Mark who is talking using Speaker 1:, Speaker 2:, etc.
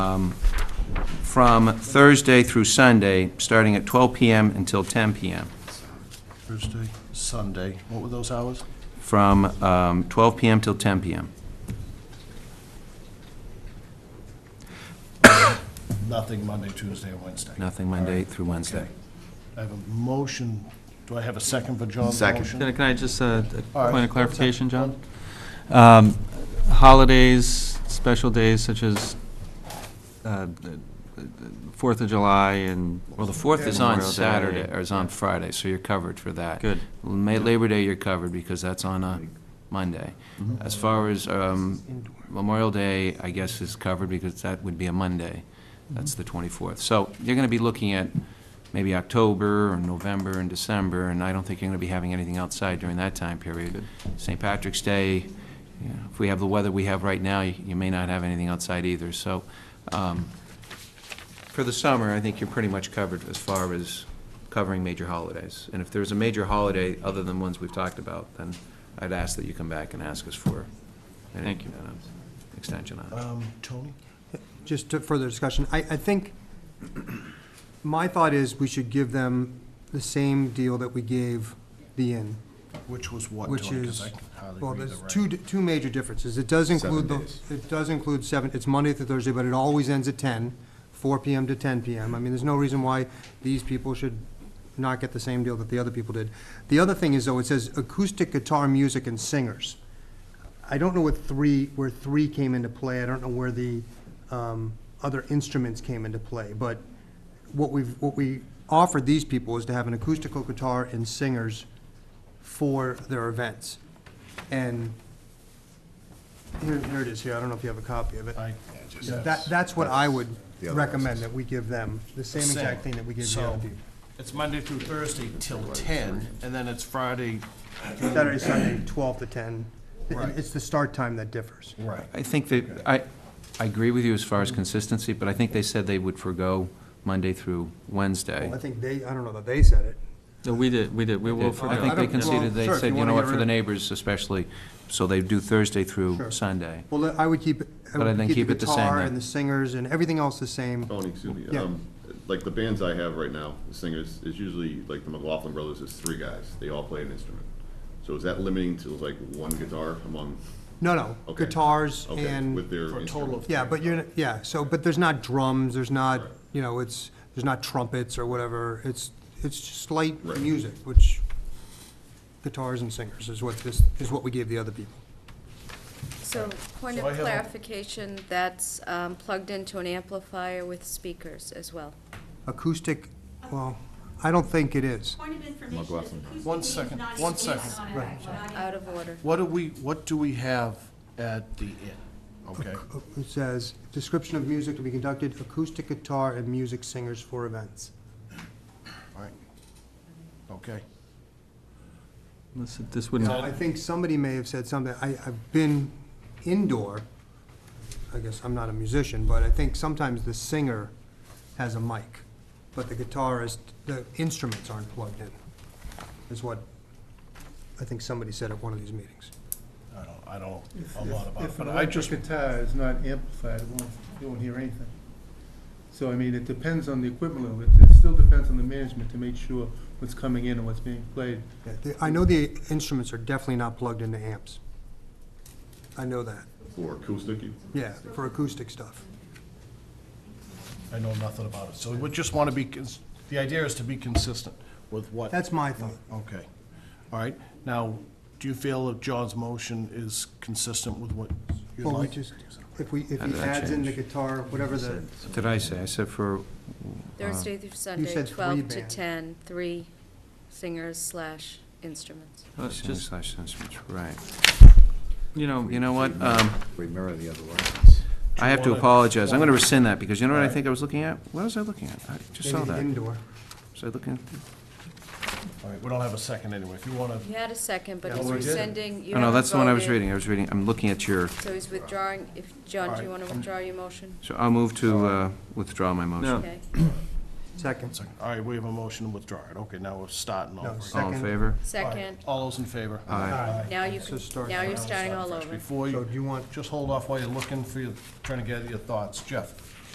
Speaker 1: um, from Thursday through Sunday, starting at 12 PM until 10 PM.
Speaker 2: Thursday, Sunday. What were those hours?
Speaker 1: From um, 12 PM till 10 PM.
Speaker 2: Nothing Monday, Tuesday, and Wednesday.
Speaker 1: Nothing Monday through Wednesday.
Speaker 2: Okay. I have a motion. Do I have a second for John's
Speaker 3: Second.
Speaker 2: motion?
Speaker 4: Can can I just, uh,
Speaker 2: All
Speaker 4: a
Speaker 2: right.
Speaker 4: point of clarification, John? Um, Holidays, special days such as uh, the- the- the Fourth of July and,
Speaker 1: Well, the 4th is on
Speaker 4: Memorial Day.
Speaker 1: Saturday, or is on Friday, so you're covered for that.
Speaker 4: good,
Speaker 1: Ma- Labor Day, you're covered, because that's on a Monday. As far as um, Memorial Day, I guess, is covered, because that would be a Monday. That's the 24th. So you're going to be looking at maybe October, or November, and December, and I don't think you're going to be having anything outside during that time period. St. Patrick's Day, you know, if we have the weather we have right now, you you may not have anything outside either. So um, for the summer, I think you're pretty much covered as far as covering major holidays. And if there's a major holiday other than ones we've talked about, then I'd ask that you come back and ask us for an
Speaker 4: Thank you.
Speaker 1: uh, extension on it.
Speaker 2: Um, Tony?
Speaker 5: just to further discussion, I, I think, my thought is we should give them the same deal that we gave the inn.
Speaker 2: Which was what,
Speaker 5: Which
Speaker 2: Tony? 'Cause
Speaker 5: is-
Speaker 2: I can hardly
Speaker 5: Well,
Speaker 2: read
Speaker 5: there's
Speaker 2: the
Speaker 5: two,
Speaker 2: writing.
Speaker 5: two major differences. It does include the,
Speaker 3: Seven days.
Speaker 5: it does include seven, it's Monday through Thursday, but it always ends at 10, 4 PM to ten PM. I mean, there's no reason why these people should not get the same deal that the other people did. The other thing is, though, it says acoustic guitar music and singers. I don't know what three, where three came into play, I don't know where the um, other instruments came into play, but what we've, what we offered these people is to have an acoustical guitar and singers for their events. And here, here it is here, I don't know if you have a copy of it.
Speaker 2: I-
Speaker 5: That, that's what I would
Speaker 3: The other
Speaker 5: recommend,
Speaker 3: houses.
Speaker 5: that we give them, the same exact thing that we gave the other
Speaker 2: So,
Speaker 5: people.
Speaker 2: It's Monday through Thursday till ten, and then it's Friday.
Speaker 5: Saturday, Sunday, twelve to ten.
Speaker 2: Right.
Speaker 5: It's the start time that differs.
Speaker 2: Right.
Speaker 1: I think that, I, I agree with you as far as consistency, but I think they said they would forego Monday through Wednesday.
Speaker 5: I think they, I don't know that they said it.
Speaker 4: no, we did, we did, we will
Speaker 1: I
Speaker 4: forego.
Speaker 1: think they
Speaker 5: don't- well,
Speaker 1: conceded, they
Speaker 5: sure, if
Speaker 1: said,
Speaker 5: you
Speaker 1: you know
Speaker 5: wanna
Speaker 1: what,
Speaker 5: get
Speaker 1: for
Speaker 5: rid
Speaker 1: the
Speaker 5: of-
Speaker 1: neighbors especially, so they do Thursday through
Speaker 5: Sure.
Speaker 1: Sunday.
Speaker 5: Well, I would keep, it-
Speaker 1: But I
Speaker 5: I would
Speaker 1: think keep
Speaker 5: keep the
Speaker 1: it the same
Speaker 5: guitar
Speaker 1: then.
Speaker 5: and the singers and everything else the same.
Speaker 6: Tony, excuse me.
Speaker 5: Yeah.
Speaker 6: um, Like the bands I have right now, the singers, is usually like the McLaughlin Brothers is three guys. They all play an instrument. So is that limiting to like one guitar among,
Speaker 5: No, no,
Speaker 6: Okay.
Speaker 5: guitars
Speaker 6: okay,
Speaker 5: and.
Speaker 6: with their
Speaker 2: For a
Speaker 6: instrument?
Speaker 2: total of.
Speaker 5: Yeah, but you're, yeah, so, but there's not drums, there's not, you know, it's, there's not trumpets or whatever, it's, it's just light
Speaker 6: Right.
Speaker 5: music, which, guitars and singers is what this, is what we gave the other people.
Speaker 7: So, point
Speaker 2: So I
Speaker 7: of
Speaker 2: have a-
Speaker 7: clarification, that's um, plugged into an amplifier with speakers as well.
Speaker 5: Acoustic, well, I don't think it is.
Speaker 8: Point of information is acoustic
Speaker 2: One
Speaker 8: means
Speaker 2: second,
Speaker 8: not
Speaker 2: one
Speaker 8: in-
Speaker 2: second.
Speaker 8: it's not in-
Speaker 5: Right.
Speaker 8: not in-
Speaker 7: Out of order.
Speaker 2: What do we, what do we have at the inn? Okay,
Speaker 5: It says, description of music to be conducted, acoustic guitar and music singers for events.
Speaker 2: all right. Okay.
Speaker 4: This this
Speaker 5: Now, I
Speaker 4: wouldn't,
Speaker 5: think somebody may have said something, I, I've been indoor, I guess I'm not a musician, but I think sometimes the singer has a mic, but the guitarist, the instruments aren't plugged in, is what I think somebody said at one of these meetings.
Speaker 2: I don't, I don't, a lot about it,
Speaker 9: If
Speaker 2: but
Speaker 9: an
Speaker 2: I
Speaker 9: electric
Speaker 2: just,
Speaker 9: guitar is not amplified, it won't, you won't hear anything. So, I mean, it depends on the equipment level, it it still depends on the management to make sure what's coming in and what's being played.
Speaker 5: Yeah, the- I know the instruments are definitely not plugged into amps. I know that,
Speaker 6: For acoustic, you-
Speaker 5: yeah, for acoustic stuff.
Speaker 2: I know nothing about it. So we just want to be, cons- the idea is to be consistent with what.
Speaker 5: That's my thought.
Speaker 2: Okay, all right. Now, do you feel that John's motion is consistent with what you'd
Speaker 5: Well, we
Speaker 2: like?
Speaker 5: just, if we, if
Speaker 1: How
Speaker 5: he
Speaker 1: did that
Speaker 5: adds in the
Speaker 1: change?
Speaker 5: guitar, whatever the,
Speaker 1: What did I say? I said for
Speaker 2: Ah.
Speaker 7: Thursday through Sunday,
Speaker 5: said three
Speaker 7: 12 to
Speaker 5: band.
Speaker 7: 10, three singers slash instruments.
Speaker 4: uh,
Speaker 1: singers
Speaker 4: just,
Speaker 1: slash instruments, right.
Speaker 4: you know,
Speaker 1: You know what, um,
Speaker 3: We mirror the other ones.
Speaker 1: I have to
Speaker 2: wanna-
Speaker 1: apologize. I'm gonna rescind that, because you know what I think I was looking at? What was I looking at? I just
Speaker 5: maybe
Speaker 1: saw
Speaker 5: the
Speaker 1: that.
Speaker 5: indoor.
Speaker 1: Was I looking?
Speaker 2: All right, we don't have a second anyway. If you want to,
Speaker 7: You had a second, but
Speaker 2: Yeah,
Speaker 7: he's
Speaker 2: we did.
Speaker 7: rescinding, you
Speaker 1: Oh, no,
Speaker 7: haven't
Speaker 1: that's the one I was
Speaker 7: voted.
Speaker 1: reading. I was reading, I'm looking at your,
Speaker 7: So he's withdrawing, if, John, do you want to withdraw
Speaker 2: um,
Speaker 7: your motion?
Speaker 1: so I'll move to uh, withdraw my motion.
Speaker 4: No.
Speaker 7: Okay.
Speaker 5: Second.
Speaker 2: all right, we have a motion to withdraw it. Okay, now we're starting
Speaker 5: No,
Speaker 2: over. again.
Speaker 1: All in
Speaker 5: Second.
Speaker 1: favor?
Speaker 7: Second,
Speaker 2: All those in favor?
Speaker 1: Aye.
Speaker 7: now you,
Speaker 5: So
Speaker 7: can-
Speaker 5: start
Speaker 7: now you're
Speaker 5: now.
Speaker 7: starting all over.
Speaker 2: Before
Speaker 5: So
Speaker 2: you,
Speaker 5: do you want,
Speaker 2: just hold off while you're looking for your, trying to get your thoughts. Jeff?